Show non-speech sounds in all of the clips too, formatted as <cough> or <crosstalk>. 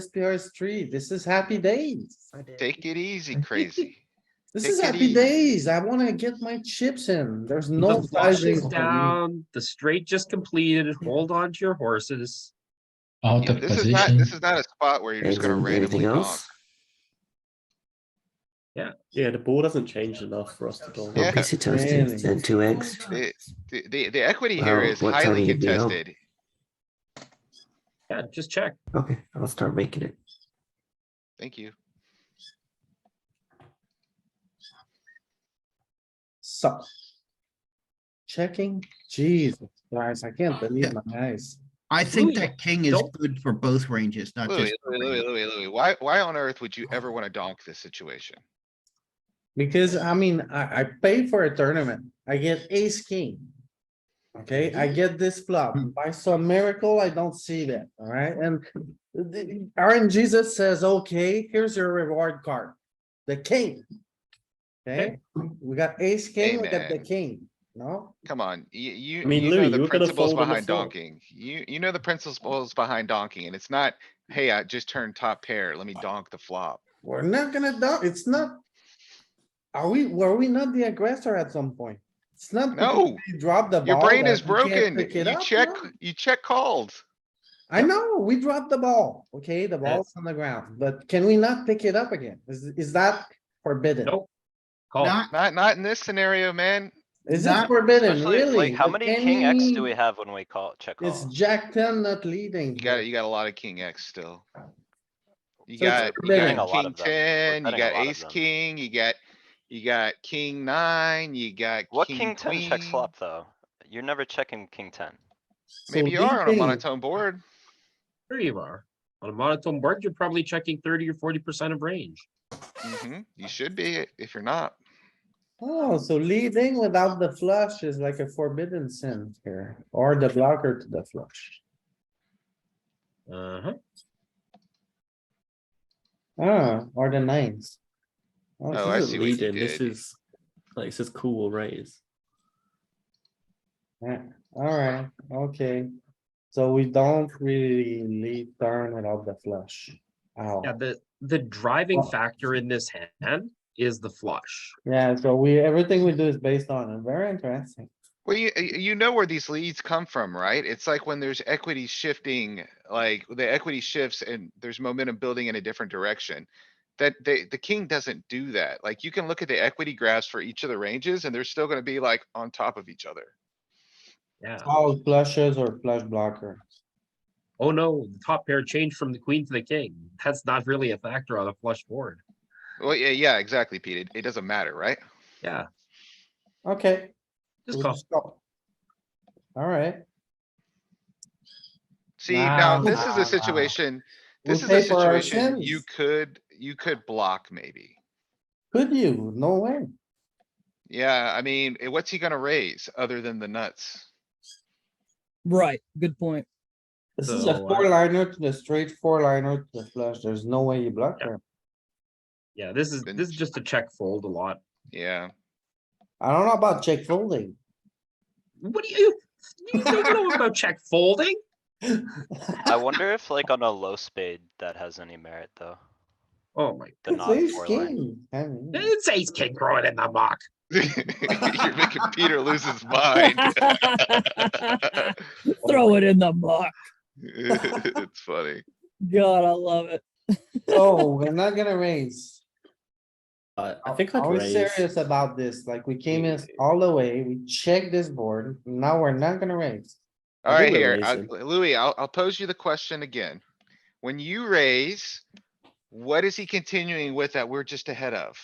SPR street. This is happy days. Take it easy, crazy. This take is it happy easy. days. I wanna get my chips in. There's no the flush sizing is for me. down. The straight just completed. Hold on to your horses. out Yeah, of This is not, position. this is not a spot where you're just gonna Anything- anything randomly donk. else? Yeah, the ball doesn't change enough for us to go. Yeah. One piece of toasted Really? and two eggs. The, the, the- the equity here Well, is what time highly do you do? contested. Yeah, just check. Okay, I'll start making it. Thank you. So. Checking, Jesus guys, I can't <laughs> believe my eyes. I think Louis, that king is don't- good for both ranges, not Louis, just. Louis, Louis, Louis, Louis, why, why on earth would you ever wanna donk this situation? Because I mean, I, I pay for a tournament. I get ace king. Okay, I get this flop. Hmm. By some miracle, I don't see that, alright? And the, Aaron Jesus says, okay, here's your reward card. The king. Okay, we got ace king, we got the Amen. king, no? Come on, you, you, I mean, you Louis, know you the were gonna principles fold on the behind flop. donking. You, you know the principles behind donking and it's not, hey, I just turned top pair, let me donk the flop. We're not gonna do, it's not. Are we, were we not the aggressor at some point? It's not. because No. we Dropped the ball. Your brain that is we can't broken. pick it You up, check, no? you check called. I know, we dropped the ball, okay, the ball's on the ground, but can we not pick it up again? Is, is that forbidden? Nope. Call. Not, Not, not in this scenario, man. Is it Not- forbidden, Especially, really? like, how With many king X any- do we have when we call, check It's call? Jack ten not leading. You got, you got a lot of king X still. You So it's got, you betting a got lot king of them. We're ten, you betting a got lot of ace them. king, you got, you got king nine, you got. What king ten checks queen. flop though? You're never checking king ten. So Maybe you big are on a thing. monotone board. There you are. On a monotone board, you're probably checking thirty or forty percent of range. Mhm, You should be if you're not. Oh, so leading without the flush is like a forbidden sin here, or the blocker to the flush. Uh huh. Ah, or the nines. Oh, I this is- This see isn't what you leading, this did. is, like, this is cool raise. Yeah, alright, okay. So we don't really lead turn without the flush. Ow. Yeah, the the driving Well- factor in this hand is the flush. Yeah, so we, everything we do is based on it. Very interesting. Well, you, you you know where these leads come from, right? It's like when there's equity shifting, like the equity shifts and there's momentum building in a different direction. That they, the king doesn't do that. Like you can look at the equity graphs for each of the ranges and they're still gonna be like on top of each other. Yeah. All flushes or flush blocker. Oh no, the top pair changed from the queen to the king. That's not really a factor on a flush board. Well, yeah, yeah, exactly, Pete. It, it doesn't matter, right? Yeah, Okay. just we'll call. just go. Alright. See, Nah, now this is nah, nah. a situation, We'll this is a pay for our situation you sins. could, you could block maybe. Could you? No way. Yeah, I mean, eh, what's he gonna raise other than the nuts? Right. Good point. This is So, a uh, four liner to the straight, four liner to the flush. There's no way you block her. Yeah, this is Then this is just a check fold a lot. Yeah, <laughs> I don't know about check folding. What do you you don't know about check folding? I wonder if like on a low spade that has any merit though. Oh my, The It's non ace four line. king. I mean, it's ace king growing in the muck. you're making Peter lose <laughs> his mind. <laughs> <laughs> Throw it in the muck. <laughs> <laughs> It's funny. God, I love it. So Oh, we're not gonna raise. I, I think I'd Are we raise. serious about this? Like, we came in all the way, we checked this board, now we're not gonna raise. I Alright, think we're here, I- raising. Louis, I'll, I'll pose you the question again. When you raise, what is he continuing with that we're just ahead of?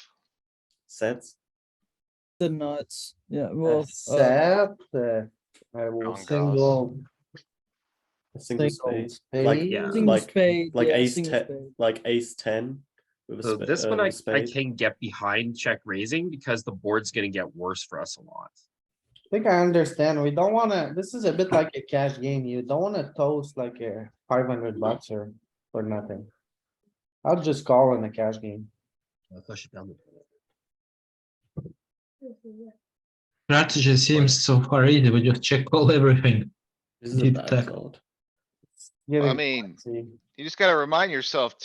Sets. The nuts. Yeah. Well, uh, Set, uh, I will Wrong single. a Single Single spade, Like, spade. yeah. single like- uh, spade. like yeah, ace single ten, spade. like ace ten. With a So spa- this uh, one with I a I spade. can get behind check raising because the board's gonna get worse for us a lot. I think I understand, we don't wanna, this is a bit like a cash game, you don't wanna toast like a five hundred bucks or, or nothing. I'll just call in a cash game. Uh, flush it down the- Strategy seems so far easy. We just check all everything. This is a Deep bad tech. card. I Giving- mean, See? you just gotta remind yourself